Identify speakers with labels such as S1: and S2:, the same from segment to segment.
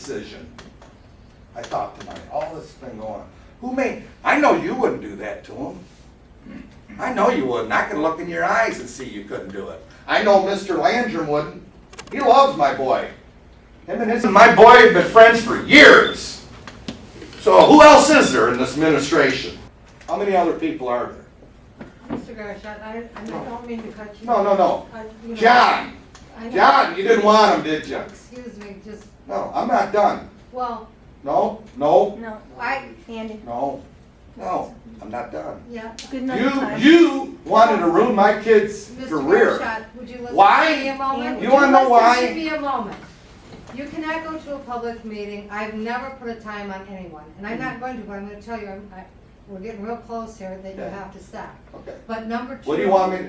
S1: decision. I thought tonight, all this has been going on. Who made, I know you wouldn't do that to him. I know you wouldn't. I can look in your eyes and see you couldn't do it. I know Mr. Landrum wouldn't. He loves my boy. Him and his, and my boy have been friends for years. So who else is there in this administration? How many other people are there?
S2: Mr. Gersh, I, I- I don't mean to cut you.
S1: No, no, no.
S2: I- you know,
S1: John,
S2: I know-
S1: John, you didn't want him, did you?
S2: Excuse me, just,
S1: No, I'm not done.
S2: well,
S1: No, no,
S3: No, I, Andy,
S1: no, no, I'm not done.
S2: yeah.
S3: good
S1: You,
S3: enough time.
S1: you wanted to ruin my kid's
S2: Mr.
S1: career.
S2: Gershot, would you listen
S1: Why?
S2: to me a
S3: You
S2: moment? Would
S1: wanna know why?
S2: Listen to me a moment. You cannot go to a public meeting. I've never put a time on anyone, and I'm not going to, but I'm gonna tell you, I'm, I, we're getting real close here, that you
S1: Okay.
S2: have to stop.
S1: Okay.
S2: But number two.
S1: What do you want me,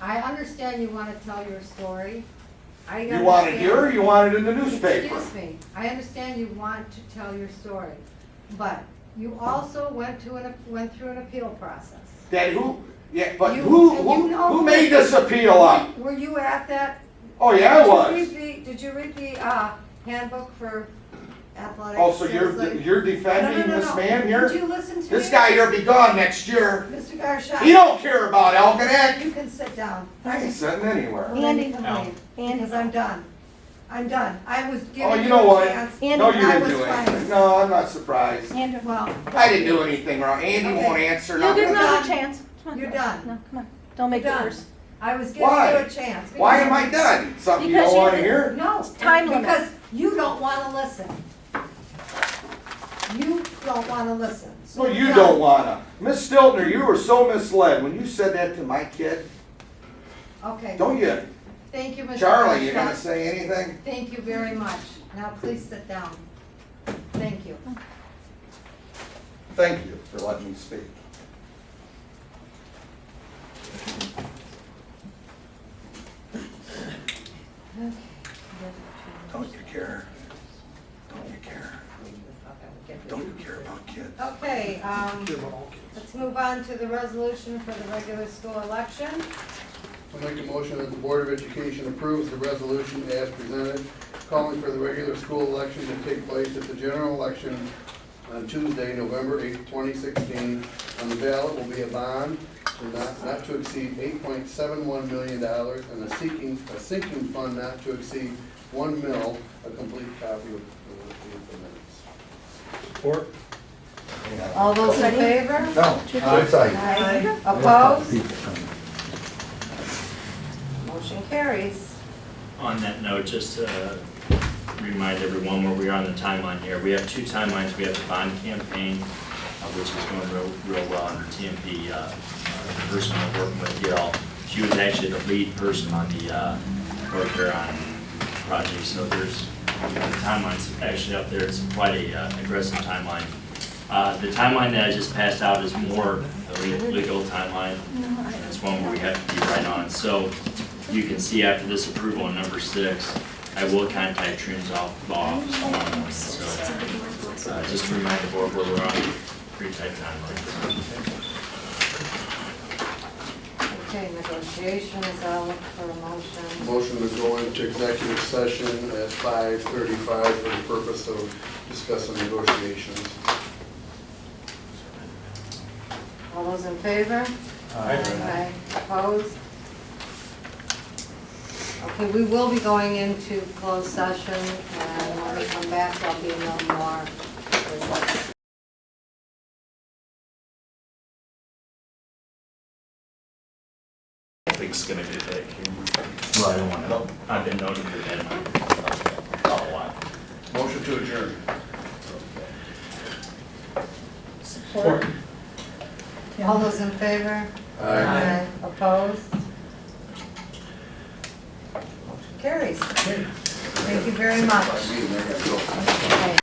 S2: I understand you wanna tell your story. I
S1: to- you want it
S2: understand-
S1: here or you want it in the newspaper?
S2: Excuse me, I understand you want to tell your story, but you also went to an, went through an appeal process.
S1: That who, yeah, but
S2: You-
S1: who,
S2: and
S1: who,
S2: you know-
S1: who made this appeal up?
S2: Were you at that?
S1: Oh, yeah, I was.
S2: Did you read the, did you read the, uh, handbook for athletics?
S1: Oh, so
S2: It was
S1: you're,
S2: like-
S1: you're
S2: No, no, no,
S1: defending this
S2: no.
S1: man
S2: Would
S1: here?
S2: you listen to me?
S1: This guy here be gone next year.
S2: Mr. Garshot.
S1: He don't care about Algonac.
S2: You can sit down.
S1: I ain't sitting anywhere.
S2: And then you can
S4: Al.
S2: leave,
S3: Andy,
S2: because I'm done. I'm done. I was
S1: Oh,
S2: giving
S1: you
S2: you
S1: know
S2: a
S1: what?
S2: chance.
S3: Andy,
S1: No, you
S2: I
S1: didn't
S2: was
S1: do anything.
S2: fine.
S1: No, I'm not surprised.
S3: Andy,
S2: Well,
S1: I didn't do anything wrong. Andy won't answer
S3: you'll get
S1: nothing.
S3: another
S2: done.
S3: chance. Come on.
S2: You're done.
S3: No, come on, don't make it
S2: Done.
S3: worse.
S2: I was giving you
S1: Why?
S2: a chance.
S1: Why am
S2: because-
S1: I done? Something you
S3: Because
S1: don't
S3: you
S1: wanna
S3: didn't-
S1: hear?
S2: No.
S3: time limit.
S2: Because you don't wanna listen. You don't wanna listen. So
S1: No, you
S2: no.
S1: don't wanna. Miss Stiltner, you were so misled when you said that to my kid.
S2: Okay,
S1: Don't you?
S2: thank you, Mr.
S1: Charlie, you
S2: Prescott.
S1: gonna say anything?
S2: Thank you very much. Now please sit down. Thank you.
S1: Thank you for letting me speak.
S2: Okay.
S1: Don't you care? Don't you care? Don't you care about kids?
S2: Okay, um, let's move on to the resolution for the regular school election.
S5: I make a motion that the Board of Education approves the resolution as presented, calling for the regular school election to take place at the general election on Tuesday, November eighth, twenty sixteen. On the ballot will be a bond to not, not to exceed eight point seven one million dollars and a seeking, a sinking fund not to exceed one mil, a complete copy of the the minutes.
S4: Support.
S2: All those in favor?
S1: No, I'm sorry.
S2: Aye. Opposed? Motion carries.
S4: On that note, just to remind everyone where we are on the timeline here, we have two timelines. We have the bond campaign, uh, which is going real, real well under TMP, uh, uh, the person I'm working with, Gail. She was actually the lead person on the, uh, North Huron project, so there's, the timeline's actually up there. It's quite a uh, aggressive timeline. Uh, the timeline that I just passed out is more the le- legal timeline. and It's one where we have to be right on. So you can see after this approval on number six, I will contact Trims off law office tomorrow morning. So, uh, just to remind the board where we're on, pretty tight timeline.
S2: Okay, negotiations, I'll look for a motion.
S5: Motion to go into executive session at five thirty-five for the purpose of discussing negotiations.
S2: All those in favor? Aye. Opposed? Okay, we will be going into closed session, and when we come back, there'll be no more reports.
S4: I think it's gonna get that camera. Well, I don't wanna. I've been noting for that, a while.
S5: Motion to adjourn.
S3: Support.
S2: All those in favor? Opposed? Carries. Thank you very much.
S5: I mean, I gotta go.
S2: Okay.